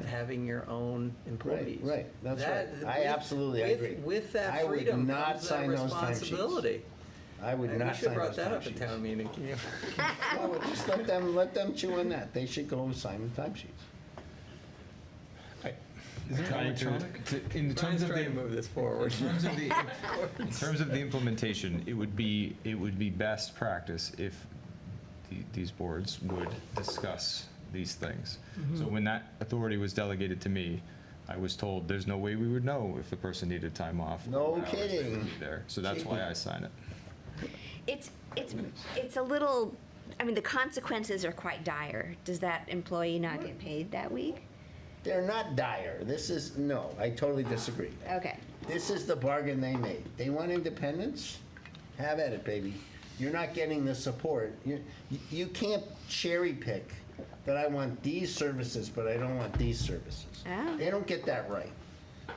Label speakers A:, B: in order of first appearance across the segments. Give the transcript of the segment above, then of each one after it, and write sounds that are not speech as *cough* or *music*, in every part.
A: having your own employees.
B: right, that's
A: That-
B: right. I
A: with-
B: absolutely
A: with-
B: agree.
A: With
B: I
A: that
B: would
A: freedom
B: not
A: comes that
B: sign those timesheets.
A: responsibility.
B: I would
A: And we
B: not
A: should
B: sign
A: have
B: those
A: brought that up
B: timesheets.
A: at town meeting.
B: Well, Just let them, let them chew on that. They should go and sign the timesheets.
C: Is it
D: Trying to-
C: electronic?
D: to- In terms of the,
A: to *laughs*
D: in
A: move this forward.
D: terms of the, in terms of the implementation, it would be, it would be best practice if the- these boards would discuss these things.
C: Mm-hmm.
D: So when that authority was delegated to me, I was told there's no way we would know if the person needed time off. or
B: No
D: what hours they would
B: kidding.
D: be There, so that's why I sign it.
E: It's, it's, it's a little, I mean, the consequences are quite dire. Does that employee not get paid that week?
B: They're not dire. This is, no, I totally disagree.
E: Okay.
B: This is the bargain they made. They want independence? Have at it, baby. You're not getting the support. You, you can't cherry pick that I want these services, but I don't want these services.
E: Oh.
B: They don't get that right.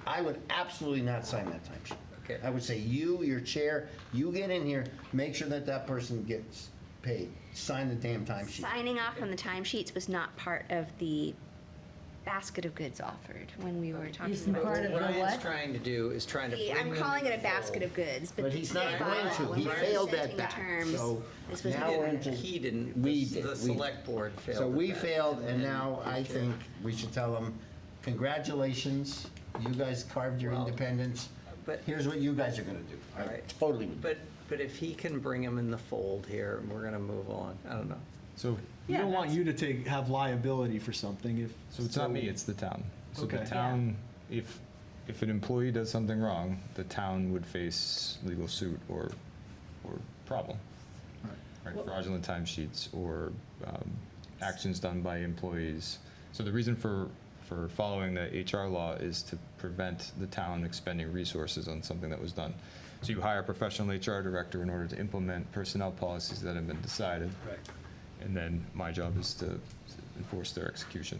B: I would absolutely not sign that timesheet.
A: Okay.
B: I would say you, your chair, you get in here, make sure that that person gets paid. Sign the damn timesheet.
E: Signing off on the timesheets was not part of the basket of goods offered when we were talking
F: Isn't
E: about.
F: part of the
A: What Ryan's
F: what?
A: trying to do is trying to
E: The-
A: bring
E: I'm
A: them
E: calling it a
A: forward.
E: basket of goods, but.
B: But he's
E: they
B: not
E: bought
B: going
E: it
B: to.
E: when
B: He
E: we were
B: failed at
E: presenting the
B: that,
E: terms.
B: so
E: This was
B: now
E: not
B: we're
E: part
A: And
E: of
B: into-
E: it.
A: He didn't,
B: We
A: the
B: did,
A: the
B: we-
A: select board failed.
B: So
A: at
B: we
A: that.
B: failed, and now I
A: Okay.
B: think we should tell them, congratulations, you guys carved your
A: Well,
B: independence.
A: but-
B: Here's what you guys are gonna do.
A: All right.
B: Totally. would do.
A: But, but if he can bring him in the fold here, and we're gonna move on, I don't know.
D: So,
C: We
F: Yeah,
C: don't want
F: that's-
C: you to take, have liability for something if.
D: so it's not me, it's the town. So the
C: Okay.
D: town, if, if an employee does something wrong, the town would face legal suit or, or problem. Right, fraudulent timesheets or um, actions done by employees. So the reason for, for following the HR law is to prevent the town expending resources on something that was done. So you hire a professional HR director in order to implement personnel policies that have been decided. Right. And then my job is to enforce their execution.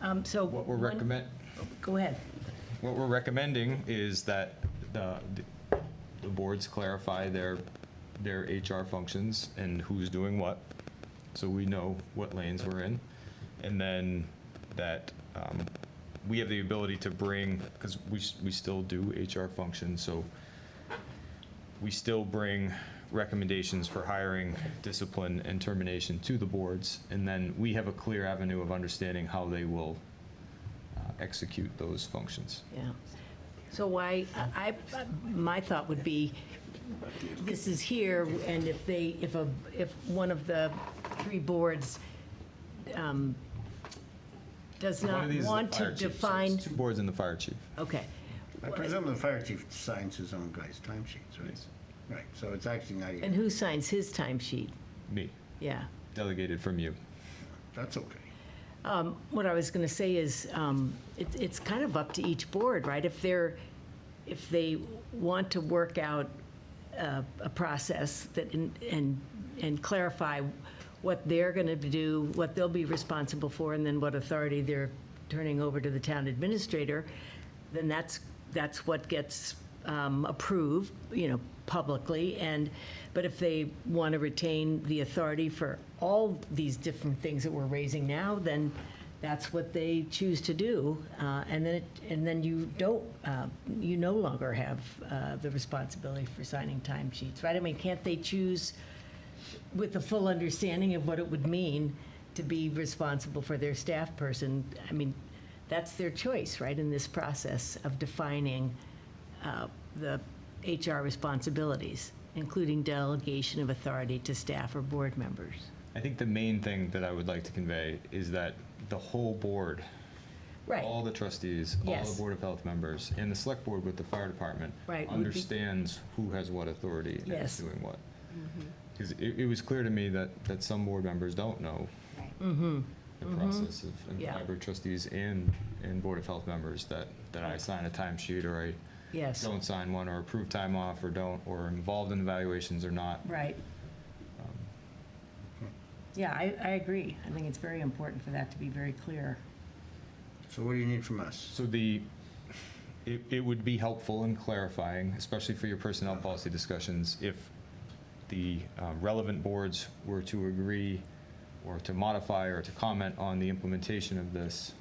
F: Um, so.
D: What we're
F: when-
D: recommend,
F: Go ahead.
D: what we're recommending is that the, the boards clarify their, their HR functions and who's doing what, so we know what lanes we're in. And then that um, we have the ability to bring, because we, s- we still do HR functions, so we still bring recommendations for hiring, discipline, and termination to the boards, and then we have a clear avenue of understanding how they will uh, execute those functions.
F: Yeah. So why, I, I- my thought would be, this is here, and if they, if a, if one of the three boards um, does
D: One
F: not
D: of these is the
F: want
D: fire
F: to
D: chief, so it's
F: define,
D: Two boards and the fire chief.
F: okay.
B: I presume the fire chief signs his own guys' timesheets, right? Right, so it's actually not
F: And
B: even,
F: who signs his timesheet?
D: Me,
F: Yeah.
D: delegated from you.
B: that's okay.
F: What I was going to say is, um, it- it's kind of up to each board, right? If they're, if they want to work out a a process that, in- and, and clarify what they're going to do, what they'll be responsible for, and then what authority they're turning over to the town administrator, then that's, that's what gets um, approved, you know, publicly. And, but if they want to retain the authority for all these different things that we're raising now, then that's what they choose to do. Uh, And then, it and then you don't, uh, you no longer have uh, the responsibility for signing timesheets, right? I mean, can't they choose with a full understanding of what it would mean to be responsible for their staff person? I mean, that's their choice, right, in this process of defining uh, the HR responsibilities, including delegation of authority to staff or board members.
D: I think the main thing that I would like to convey is that the whole board,
F: Right.
D: all the trustees, all the
F: Yes.
D: Board of Health members, and the select board with the fire department
F: Right, would be-
D: understands who has what authority and is
F: Yes. Mm-hmm.
D: doing what. Because it, it was clear to me that, that some board members don't know
E: Right.
D: the
F: Mm-hmm.
D: process of, and
F: Yeah.
D: library trustees and, and Board of Health members, that, that I sign a timesheet or I
F: Yes.
D: don't sign one, or approve time off, or don't, or involved in evaluations or not.
F: Right. Yeah, I, I agree. I think it's very important for that to be very clear.
B: So what do you need from us?
D: So the, it, it would be helpful in clarifying, especially for your personnel policy discussions, if the uh, relevant boards were to agree or to modify or to comment on the implementation of this,